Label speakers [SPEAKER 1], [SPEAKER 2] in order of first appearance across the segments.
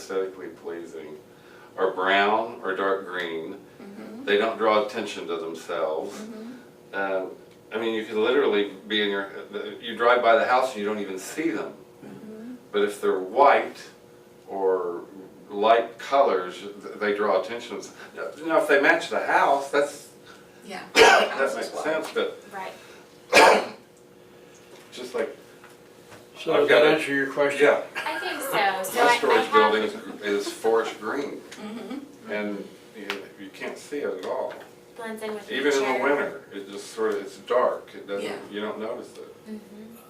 [SPEAKER 1] aesthetically pleasing, are brown or dark green.
[SPEAKER 2] Mm-hmm.
[SPEAKER 1] They don't draw attention to themselves. Um, I mean, you can literally be in your, you drive by the house and you don't even see them.
[SPEAKER 2] Mm-hmm.
[SPEAKER 1] But if they're white or light colors, th- they draw attention. Now- Now, if they match the house, that's,
[SPEAKER 2] Yeah.
[SPEAKER 1] that
[SPEAKER 2] House
[SPEAKER 1] makes
[SPEAKER 2] as well.
[SPEAKER 1] sense, but
[SPEAKER 2] Right.
[SPEAKER 1] just like,
[SPEAKER 3] So
[SPEAKER 1] I've
[SPEAKER 3] does that
[SPEAKER 1] got a-
[SPEAKER 3] answer your question?
[SPEAKER 1] yeah,
[SPEAKER 4] I think so, so
[SPEAKER 1] my
[SPEAKER 4] I, I
[SPEAKER 1] storage building
[SPEAKER 4] have,
[SPEAKER 1] is, is forest green.
[SPEAKER 2] Mhm.
[SPEAKER 1] And you, you can't see it at all.
[SPEAKER 4] blends in with nature.
[SPEAKER 1] Even in the winter, it just sort of, it's dark, it doesn't,
[SPEAKER 2] Yeah.
[SPEAKER 1] you don't notice it.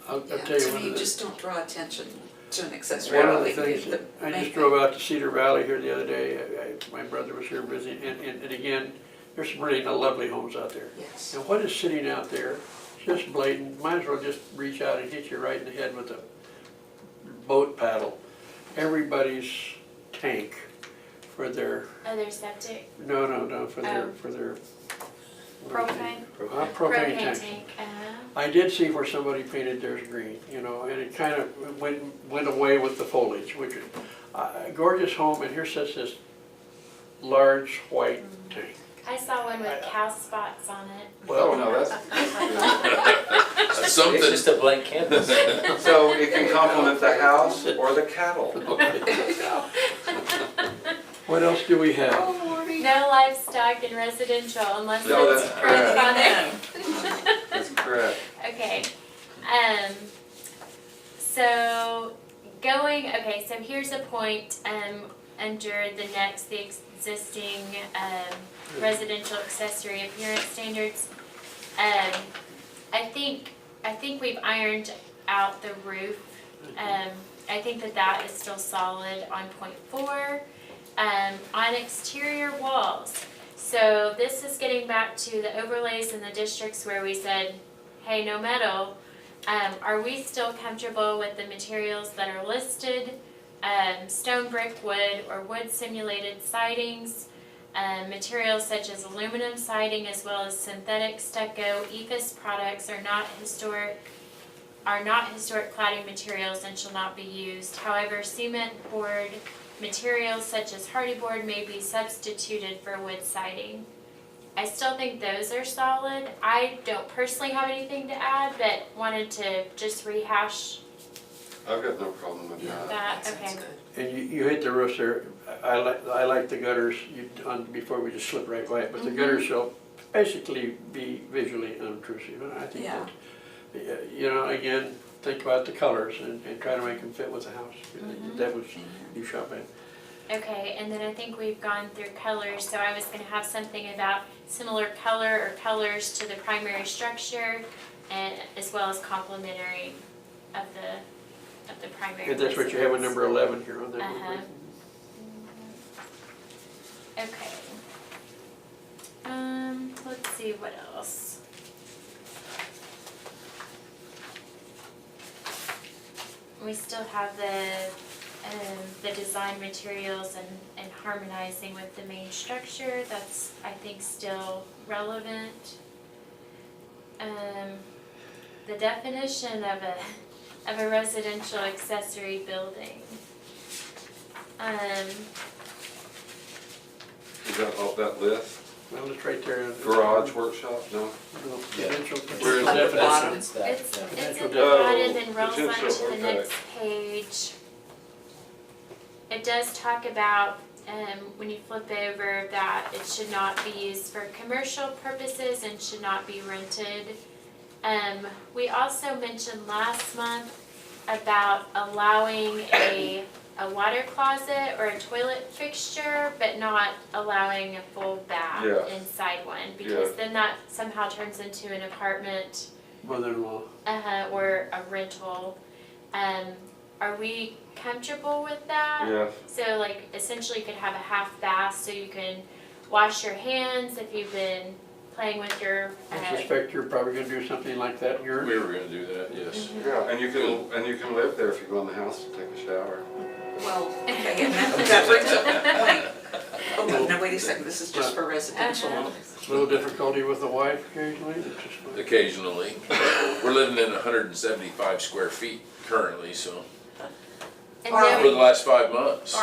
[SPEAKER 3] I'll, I'll
[SPEAKER 2] Yeah,
[SPEAKER 3] tell you
[SPEAKER 2] so
[SPEAKER 3] one
[SPEAKER 2] you
[SPEAKER 3] of the,
[SPEAKER 2] just don't draw attention to an accessory
[SPEAKER 3] one of the
[SPEAKER 2] building.
[SPEAKER 3] things, that-
[SPEAKER 2] The
[SPEAKER 3] I
[SPEAKER 2] main
[SPEAKER 3] just drove out to Cedar Valley here the other day, I, I, my brother was here visiting, and, and, and again, there's some really lovely homes out there.
[SPEAKER 2] thing- Yes.
[SPEAKER 3] And what is sitting out there, just blatant, might as well just reach out and hit you right in the head with a boat paddle. Everybody's tank for their,
[SPEAKER 4] Oh, their septic
[SPEAKER 3] no, no, no, for their,
[SPEAKER 4] Oh.
[SPEAKER 3] for their.
[SPEAKER 4] propane,
[SPEAKER 1] Uh-huh. Oh,
[SPEAKER 3] Uh, Propane
[SPEAKER 4] propane
[SPEAKER 3] tanks.
[SPEAKER 4] tank, uh,
[SPEAKER 3] I did see where somebody painted theirs green, you know, and it kind of went, went away with the foliage, which, is- uh, gorgeous home, and here sits this large white tank.
[SPEAKER 4] I saw one with
[SPEAKER 3] I-
[SPEAKER 4] cow spots on it.
[SPEAKER 1] Oh,
[SPEAKER 3] Well,
[SPEAKER 1] no, that's.
[SPEAKER 5] It's just a blank canvas.
[SPEAKER 1] So it can complement the house or the cattle.
[SPEAKER 3] what else do we have?
[SPEAKER 2] Oh, Lordy.
[SPEAKER 4] No livestock in residential unless
[SPEAKER 1] No,
[SPEAKER 4] it's
[SPEAKER 1] that's
[SPEAKER 4] printed
[SPEAKER 1] correct.
[SPEAKER 4] on there.
[SPEAKER 1] That's correct.
[SPEAKER 4] Okay. Um, so going, okay, so here's a point, um, under the next, the existing, um, residential accessory appearance standards. Um, I think, I think we've ironed out the roof. Um, I think that that is still solid on point four. Um, on exterior walls. So this is getting back to the overlays in the districts where we said hey, no metal, um, are we still comfortable with the materials that are listed? Um, stone, brick, wood, or wood simulated sidings, um, materials such as aluminum siding as well as synthetic stucco, E EFIS products are not historic, are not historic cladding materials and shall not be used. However, cement board materials such as hardy board may be substituted for wood siding. I still think those are solid. I don't personally have anything to add, but wanted to just rehash
[SPEAKER 1] I've got no problem with that.
[SPEAKER 4] that,
[SPEAKER 2] sounds
[SPEAKER 4] okay.
[SPEAKER 2] good.
[SPEAKER 3] And you, you hit the roofs there, I like, I like the gutters, you, on, before we just slip right by it, but the gutters shall basically be visually unobtrusive, and I think
[SPEAKER 2] Yeah.
[SPEAKER 3] that, yeah, you know, again, think about the colors and, and try to make them fit with the house, that was, you shot at.
[SPEAKER 4] Okay, and then I think we've gone through colors, so I was gonna have something about similar color or colors to the primary structure and as well as complementary of the, of the primary.
[SPEAKER 3] And that's what you have in
[SPEAKER 4] residence.
[SPEAKER 3] number eleven here on that one.
[SPEAKER 4] Uh-huh.
[SPEAKER 3] right?
[SPEAKER 4] Okay. Um, let's see what else. We still have the, um, the design materials and, and harmonizing with the main structure, that's, I think, still relevant. Um, the definition of a, of a residential accessory building. Um,
[SPEAKER 1] Is that off that list?
[SPEAKER 3] Well, it's right there. in-
[SPEAKER 1] Garage workshop, no?
[SPEAKER 3] No, potential-
[SPEAKER 1] Where is
[SPEAKER 3] potential
[SPEAKER 2] that?
[SPEAKER 3] definition.
[SPEAKER 5] It's that,
[SPEAKER 4] It's,
[SPEAKER 5] yeah.
[SPEAKER 4] it's
[SPEAKER 3] Potential
[SPEAKER 4] at the
[SPEAKER 1] debt.
[SPEAKER 4] bottom and rolls
[SPEAKER 1] Oh,
[SPEAKER 4] on
[SPEAKER 1] potential,
[SPEAKER 4] to the
[SPEAKER 1] okay.
[SPEAKER 4] next page. It does talk about, um, when you flip over, that it should not be used for commercial purposes and should not be rented. Um, we also mentioned last month about allowing a, a water closet or a toilet fixture, but not allowing a full bath
[SPEAKER 1] Yeah.
[SPEAKER 4] inside one,
[SPEAKER 1] Yeah.
[SPEAKER 4] because then that somehow turns into an apartment
[SPEAKER 3] Mother-in-law.
[SPEAKER 4] uh-huh, or a rental. Um, are we comfortable with that?
[SPEAKER 1] Yeah,
[SPEAKER 4] So like essentially you could have a half bath so you can wash your hands if you've been playing with your
[SPEAKER 3] I
[SPEAKER 4] uh,
[SPEAKER 3] suspect you're probably gonna do something like that in your,
[SPEAKER 6] We were gonna do that, yes.
[SPEAKER 1] yeah, and you can, and you can live there if you go in the house to take a shower.
[SPEAKER 2] Well, okay, and that that brings up the point. Hold on, now wait a second, this is just for residential.
[SPEAKER 3] little difficulty with the wife occasionally, it's just like-
[SPEAKER 6] Occasionally. We're living in hundred and seventy-five square feet currently, so,
[SPEAKER 4] and
[SPEAKER 2] Or-
[SPEAKER 4] then-
[SPEAKER 6] for the last five months.